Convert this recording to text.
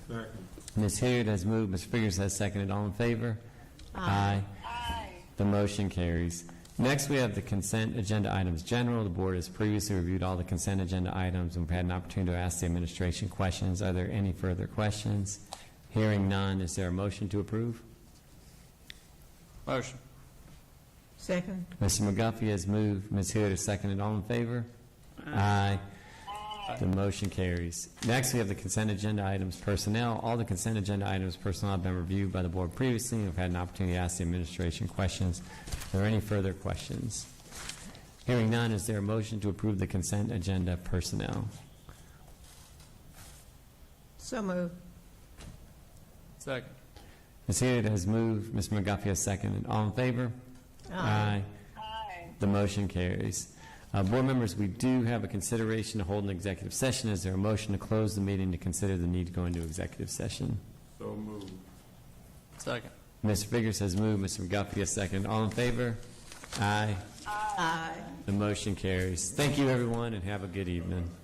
Ms. Hilliard has moved, Ms. Figurs has seconded. All in favor? Aye. The motion carries. Next, we have the consent agenda items general. The board has previously reviewed all the consent agenda items, and we've had an opportunity to ask the administration questions. Are there any further questions? Hearing none, is there a motion to approve? Motion. Second. Mr. McGuffey has moved, Ms. Hilliard has seconded. All in favor? Aye. The motion carries. Next, we have the consent agenda items personnel. All the consent agenda items personnel have been reviewed by the board previously, and have had an opportunity to ask the administration questions. Are there any further questions? Hearing none, is there a motion to approve the consent agenda personnel? So moved. Second. Ms. Hilliard has moved, Ms. McGuffey has seconded. All in favor? Aye. The motion carries. Uh, Board members, we do have a consideration to hold an executive session. Is there a motion to close the meeting to consider the need to go into executive session? So moved. Second. Mr. Figurs has moved, Mr. McGuffey has seconded. All in favor? Aye. Aye. The motion carries. Thank you, everyone, and have a good evening.